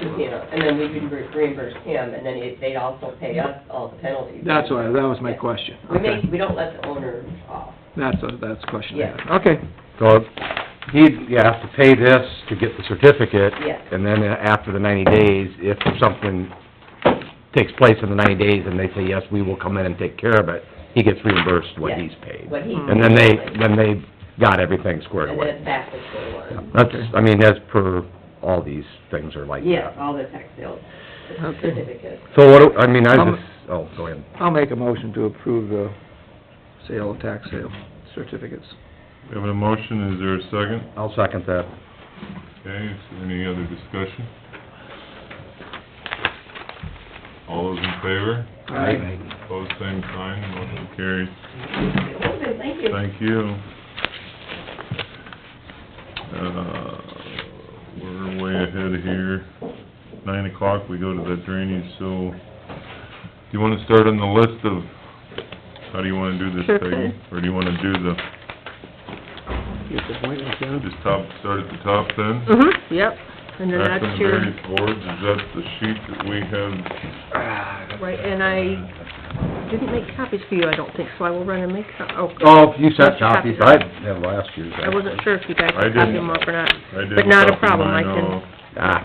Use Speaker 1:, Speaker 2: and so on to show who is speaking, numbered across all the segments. Speaker 1: the casino, and then we would re- reimburse him, and then if they'd also pay us all the penalties.
Speaker 2: That's why, that was my question.
Speaker 1: We
Speaker 2: Okay,
Speaker 1: make, we don't let the owner off.
Speaker 2: that's, a- that's a question I
Speaker 1: Yeah.
Speaker 2: had. Okay,
Speaker 3: So he'd, you have to pay this to get the certificate.
Speaker 1: Yes.
Speaker 3: And then after the ninety days, if something takes place in the ninety days and they say, yes, we will come in and take care of it, he gets reimbursed what
Speaker 1: Yeah,
Speaker 3: he's paid.
Speaker 1: What he.
Speaker 3: And then they, then they got everything squared
Speaker 1: And
Speaker 3: away.
Speaker 1: then back to square one.
Speaker 3: That's, I mean, as per, all these things are like
Speaker 1: Yes,
Speaker 3: that.
Speaker 1: all the tax sales
Speaker 2: Okay.
Speaker 1: certificates.
Speaker 3: So what, do- I mean, I
Speaker 2: Um,
Speaker 3: just, oh, go ahead.
Speaker 2: I'll make a motion to approve the sale, tax sale certificates.
Speaker 4: We have a motion, is there a second?
Speaker 3: I'll second that.
Speaker 4: Okay, is there any other discussion? All those in favor,
Speaker 2: Aye.
Speaker 4: opposed, same sign, motion carries.
Speaker 1: Okay, thank you.
Speaker 4: Thank you. Uh, we're way ahead here. Nine o'clock, we go to the drainage, so, do you wanna start on the list of, how do you wanna do this,
Speaker 5: Sure
Speaker 4: Peggy?
Speaker 5: thing.
Speaker 4: Or do you wanna do the,
Speaker 2: Get the point, yeah.
Speaker 4: just top, start at the top then?
Speaker 5: Mm-hmm, yep, and then
Speaker 4: Act on
Speaker 5: that's your,
Speaker 4: various boards, is that the sheet that we have?
Speaker 5: right, and I didn't make copies for you, I don't think, so I will run and make some, oh.
Speaker 3: Oh, you sent
Speaker 5: Let's copy
Speaker 3: copies, I
Speaker 5: that.
Speaker 3: had last year's.
Speaker 5: I wasn't sure if you guys
Speaker 4: I
Speaker 5: copied them
Speaker 4: didn't.
Speaker 5: up or not.
Speaker 4: I did
Speaker 5: But not a
Speaker 4: copy
Speaker 5: problem, I
Speaker 4: mine
Speaker 5: can,
Speaker 4: off.
Speaker 3: Ah,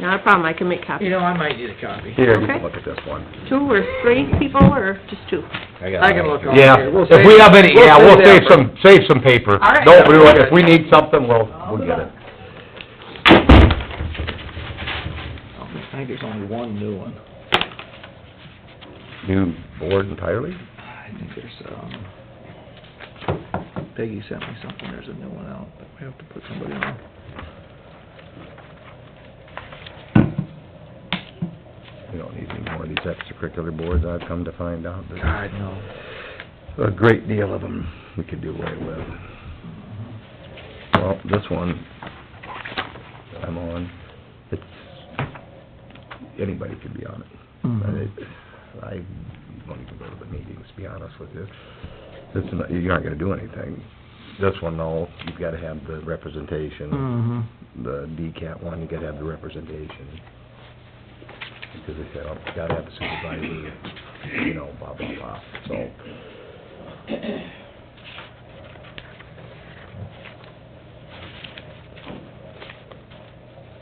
Speaker 5: not a problem, I can make
Speaker 2: You
Speaker 5: copies.
Speaker 2: know, I might need a copy.
Speaker 3: here, you can
Speaker 5: Okay.
Speaker 3: look at this one.
Speaker 5: Two or three people, or just two?
Speaker 2: I can look over
Speaker 3: Yeah,
Speaker 2: here. We'll
Speaker 3: if we
Speaker 2: save-
Speaker 3: have any,
Speaker 2: we'll
Speaker 3: yeah, we'll
Speaker 2: that
Speaker 3: save
Speaker 2: for-
Speaker 3: some, save some paper.
Speaker 2: All right.
Speaker 3: Don't worry, if we need something, we'll, we'll get it.
Speaker 2: Oh, I think there's only one new one.
Speaker 3: New board entirely?
Speaker 2: I think there's, um, Peggy sent me something, there's a new one out, but we have to put somebody on.
Speaker 3: We don't need any more of these extracurricular boards, I've come to find out. that
Speaker 2: God, no.
Speaker 3: A great deal of them we could do away with. Well, this one that I'm on, it's, anybody could be on it. But it- I don't even go to the meetings, to be honest with you. This, is not- you aren't gonna do anything. This one, though, you've gotta have the representation.
Speaker 2: Mm-hmm.
Speaker 3: The DCAT one, you gotta have the representation. Because they said, oh, you gotta have the supervisor, you know, blah, blah, blah, so.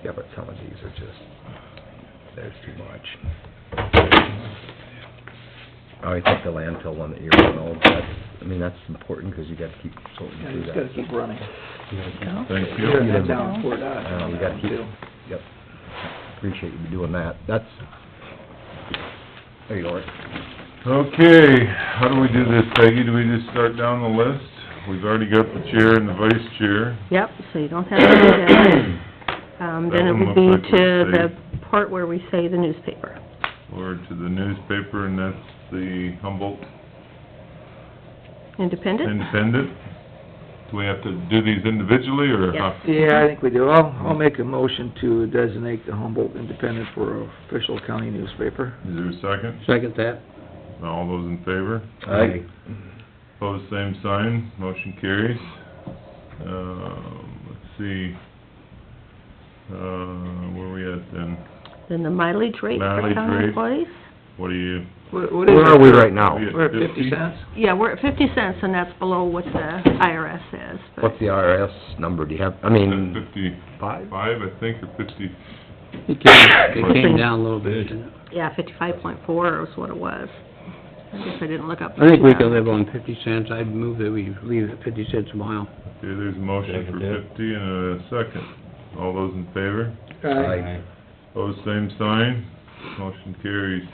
Speaker 3: Yeah, but some of these are just, there's too much. I always think the landfill one that you're on, oh, that's, I mean, that's important, 'cause you gotta keep sorting
Speaker 2: Yeah, you
Speaker 3: through
Speaker 2: just gotta
Speaker 3: that.
Speaker 2: keep running.
Speaker 3: You gotta keep
Speaker 4: Thank
Speaker 2: You gotta
Speaker 4: you.
Speaker 2: head down toward us.
Speaker 3: Yeah, we Um, gotta keep- Yep. Appreciate you doing that. That's, there you are.
Speaker 4: Okay, how do we do this, Peggy? Do we just start down the list? We've already got the chair and the vice chair.
Speaker 5: Yep, so you don't have to do that. Um, then
Speaker 4: That
Speaker 5: it
Speaker 4: one looks
Speaker 5: would be
Speaker 4: like we
Speaker 5: to the
Speaker 4: saved.
Speaker 5: part where we say the newspaper.
Speaker 4: Or to the newspaper, and that's the Humboldt
Speaker 5: Independent?
Speaker 4: Independent. Do we have to do these individually, or?
Speaker 1: Yes.
Speaker 2: Yeah, I think we do. I'll, I'll make a motion to designate the Humboldt Independent for official county newspaper.
Speaker 4: Is there a second?
Speaker 3: Second that.
Speaker 4: All those in favor?
Speaker 3: Aye.
Speaker 4: Pose same sign, motion carries. Um, let's see, uh, where we at then?
Speaker 5: Then the mileage rate for
Speaker 4: Mileage
Speaker 5: county
Speaker 4: rate.
Speaker 5: employees?
Speaker 4: What are you,
Speaker 2: What, what is it?
Speaker 3: Where are we right now?
Speaker 4: Yeah.
Speaker 2: We're at fifty cents?
Speaker 5: Yeah, we're at fifty cents, and that's below what the IRS is, but
Speaker 3: What's the IRS number? Do you have, I
Speaker 4: at
Speaker 3: mean,
Speaker 4: fifty-five,
Speaker 3: five?
Speaker 4: I think, or fifty?
Speaker 6: It came, it came
Speaker 5: Something.
Speaker 6: down a little bit, didn't it?
Speaker 5: Yeah, fifty-five point four is what it was. I guess I didn't look up.
Speaker 6: I think we can live on fifty cents, I'd move that we leave it fifty cents a mile.
Speaker 4: Okay, there's a motion for
Speaker 3: Second, yeah.
Speaker 4: fifty and a second. All those in favor?
Speaker 3: Aye.
Speaker 4: Pose same sign, motion carries.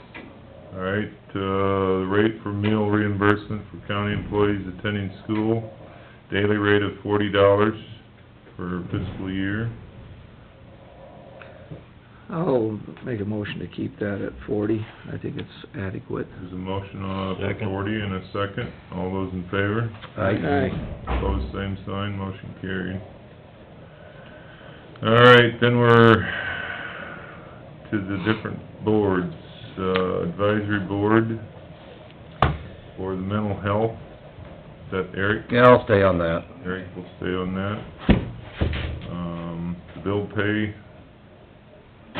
Speaker 4: All right, uh, rate for meal reimbursement for county employees attending school, daily rate of forty dollars for fiscal year.
Speaker 2: I'll make a motion to keep that at forty. I think it's adequate.
Speaker 4: There's a motion on for
Speaker 3: Second.
Speaker 4: forty and a second. All those in favor?
Speaker 3: Aye.
Speaker 4: Opposed, same sign, motion carried. All right, then we're to the different boards. Uh, advisory board for the mental health. Is that Eric?
Speaker 3: Yeah, I'll stay on that.
Speaker 4: Eric will stay on that. Um, the bill pay